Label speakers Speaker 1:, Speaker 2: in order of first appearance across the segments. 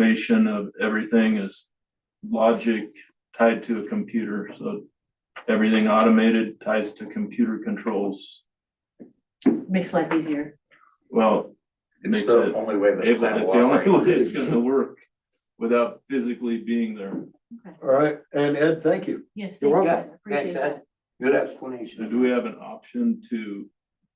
Speaker 1: automation of everything is logic tied to a computer, so everything automated ties to computer controls.
Speaker 2: Makes life easier.
Speaker 1: Well,
Speaker 3: It's
Speaker 1: Makes
Speaker 3: the
Speaker 1: it
Speaker 3: only way this
Speaker 1: if
Speaker 3: plan
Speaker 1: that's
Speaker 3: will
Speaker 1: the only
Speaker 3: operate.
Speaker 1: way it's gonna work without physically being there.
Speaker 2: Okay.
Speaker 4: All right, and Ed, thank you.
Speaker 2: Yes, thank
Speaker 4: You're
Speaker 2: you.
Speaker 4: welcome.
Speaker 2: Appreciate
Speaker 3: Thanks,
Speaker 2: that.
Speaker 3: Good
Speaker 1: So
Speaker 3: explanation.
Speaker 1: do we have an option to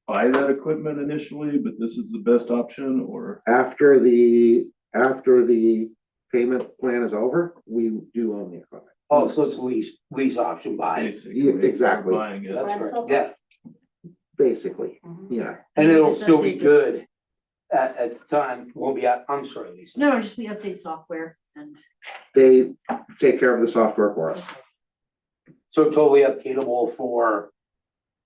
Speaker 1: buy that equipment initially, but this is the best option, or?
Speaker 5: After the, after the payment plan is over, we do own the equipment.
Speaker 3: Oh, so it's lease, lease option buy.
Speaker 1: basically
Speaker 5: yeah, exactly.
Speaker 1: Buying it.
Speaker 3: That's
Speaker 2: Rental.
Speaker 3: correct, yeah,
Speaker 5: Basically, yeah.
Speaker 3: and it'll
Speaker 2: Just
Speaker 3: still be
Speaker 2: update this.
Speaker 3: good at, at the time, won't be, out- I'm sorry, Lisa.
Speaker 2: No, just we update software and.
Speaker 5: They take care of the software for us.
Speaker 3: So totally updatable for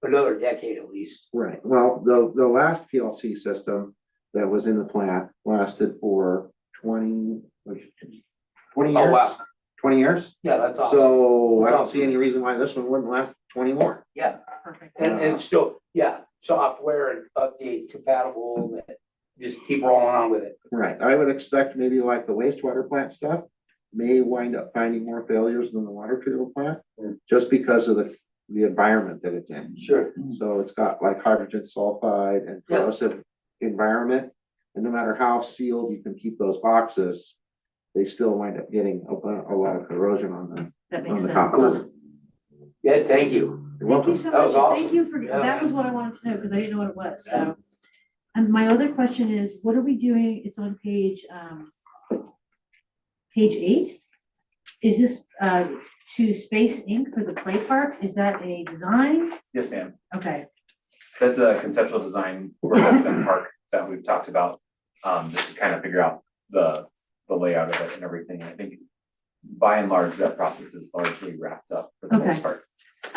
Speaker 3: another decade at least.
Speaker 5: Right, well, the, the last PLC system that was in the plant lasted for twenty, like, twenty
Speaker 3: Oh,
Speaker 5: years,
Speaker 3: wow,
Speaker 5: twenty years.
Speaker 3: yeah, that's awesome,
Speaker 5: So I
Speaker 3: That's
Speaker 5: don't
Speaker 3: awesome.
Speaker 5: see any reason why this one wouldn't last twenty more.
Speaker 3: yeah, Uh-huh.
Speaker 2: Perfect.
Speaker 3: and, and still, yeah, software and update compatible, just keep rolling on with it.
Speaker 5: Right, I would expect maybe like the wastewater plant stuff may wind up finding more failures than the water treatment plant.
Speaker 3: Mm.
Speaker 5: Just because of the, the environment that it's in.
Speaker 3: Sure.
Speaker 2: Mm-hmm.
Speaker 5: So it's got like hydrogen sulfide and
Speaker 3: Yeah.
Speaker 5: corrosive environment. And no matter how sealed you can keep those boxes, they still wind up getting a lot, a lot of corrosion on them,
Speaker 2: That
Speaker 5: on
Speaker 2: makes
Speaker 5: the
Speaker 2: sense.
Speaker 5: top. cover.
Speaker 3: Yeah,
Speaker 2: Thank
Speaker 3: thank you,
Speaker 5: You're
Speaker 2: you
Speaker 5: welcome.
Speaker 2: so
Speaker 3: That
Speaker 2: much.
Speaker 3: was
Speaker 2: Thank
Speaker 3: awesome.
Speaker 2: you for,
Speaker 3: Yeah.
Speaker 2: that was what I wanted to know, because I didn't know what it was, so. And my other question is, what are we doing? It's on page, um, page eight. Is this, uh, to Space Inc. for the play park? Is that a design?
Speaker 6: Yes, ma'am.
Speaker 2: Okay,
Speaker 6: That's a conceptual design for the park that we've talked about, um, just to kind of figure out the, the layout of it and everything. I think by and large, that process is largely wrapped up for the
Speaker 2: Okay.
Speaker 6: most part.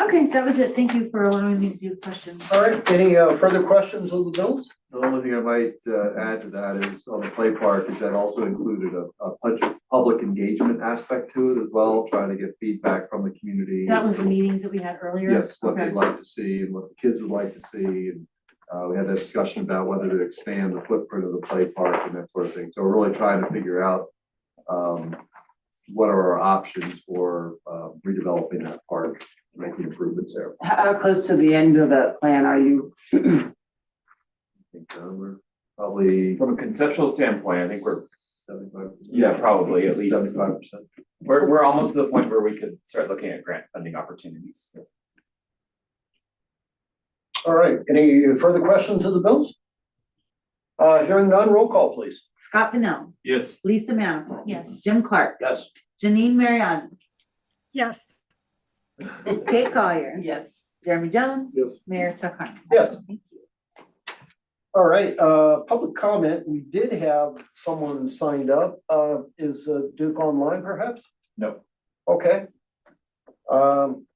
Speaker 2: okay, that was it. Thank you for allowing me to do questions.
Speaker 4: All right, any uh, further questions on the bills?
Speaker 7: The only thing I might uh, add to that is on the play park, is that also included a, a punch- public engagement aspect to it as well, trying to get feedback from the community.
Speaker 2: That was the meetings that we had earlier.
Speaker 7: Yes, what
Speaker 2: Okay.
Speaker 7: they'd like to see and what the kids would like to see. And uh, we had that discussion about whether to expand the footprint of the play park and that sort of thing. So we're really trying to figure out um, what are our options for uh, redeveloping that park, making improvements there.
Speaker 8: How, how close to the end of the plan are you?
Speaker 7: I think uh, we're probably
Speaker 6: From a conceptual standpoint, I think we're,
Speaker 7: seventy-five.
Speaker 6: yeah, probably at least,
Speaker 7: Seventy-five percent.
Speaker 6: we're, we're almost to the point where we could start looking at grant funding opportunities.
Speaker 4: All right, any further questions on the bills? Uh, hearing none, roll call, please.
Speaker 9: Scott Pennell,
Speaker 1: Yes.
Speaker 9: Lisa Manifold.
Speaker 2: Yes.
Speaker 9: Jim Clark,
Speaker 3: yes.
Speaker 9: Janine Mariani,
Speaker 10: Yes.
Speaker 9: Kate Collier,
Speaker 8: Yes.
Speaker 9: Jeremy Jones,
Speaker 4: Yes.
Speaker 9: Mayor Chuck Harmon.
Speaker 4: Yes. All right, uh, public comment, we did have someone signed up, uh, is uh, Duke online perhaps?
Speaker 6: No.
Speaker 4: Okay. Um,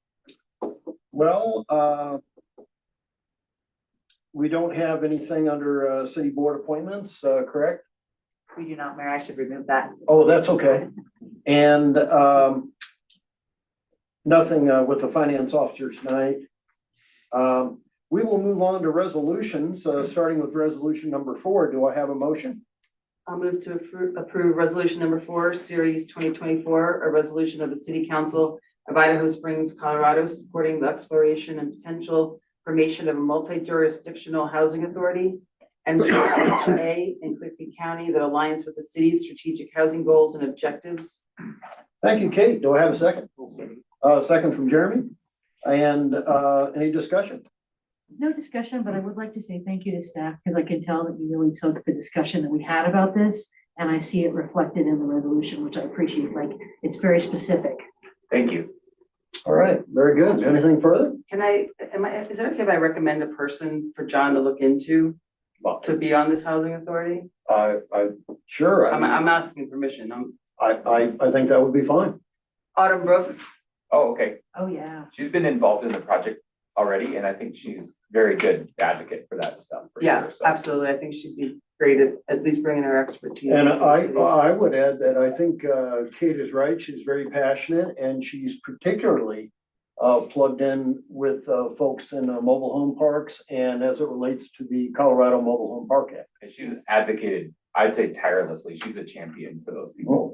Speaker 4: well, uh, we don't have anything under, uh, city board appointments, uh, correct?
Speaker 9: We do not, Mayor, I should remove that.
Speaker 4: Oh, that's okay. And um. Nothing uh, with the finance officer tonight. Um, we will move on to resolutions, uh, starting with resolution number four. Do I have a motion?
Speaker 8: I'll move to approve, approve resolution number four, series twenty twenty-four, a resolution of the city council of Idaho Springs, Colorado, supporting the exploration and potential formation of a multi-jurisdictional housing authority and MHA in Quigley County that aligns with the city's strategic housing goals and objectives.
Speaker 4: Thank you, Kate. Do I have a second? Uh, second from Jeremy. And uh, any discussion?
Speaker 2: No discussion, but I would like to say thank you to staff, because I can tell that you really took the discussion that we had about this, and I see it reflected in the resolution, which I appreciate, like, it's very specific.
Speaker 6: Thank you.
Speaker 4: All right, very good. Anything further?
Speaker 8: Can I, am I, is it okay if I recommend a person for John to look into to be on this housing authority?
Speaker 4: I, I, sure.
Speaker 8: I'm,
Speaker 4: I,
Speaker 8: I'm asking permission. I'm
Speaker 4: I, I think that would be fine.
Speaker 8: Autumn Brooks.
Speaker 6: Oh, okay.
Speaker 2: Oh, yeah.
Speaker 6: She's been involved in the project already, and I think she's very good advocate for that stuff. for
Speaker 8: Yeah,
Speaker 6: sure, so.
Speaker 8: absolutely. I think she'd be great at, at least bringing her expertise.
Speaker 4: And
Speaker 8: into the
Speaker 4: I,
Speaker 8: city.
Speaker 4: I would add that I think uh, Kate is right. She's very passionate and she's particularly uh, plugged in with uh, folks in uh, mobile home parks and as it relates to the Colorado Mobile Home Park Act.
Speaker 6: And she's advocated I'd say tirelessly, she's a champion for those people.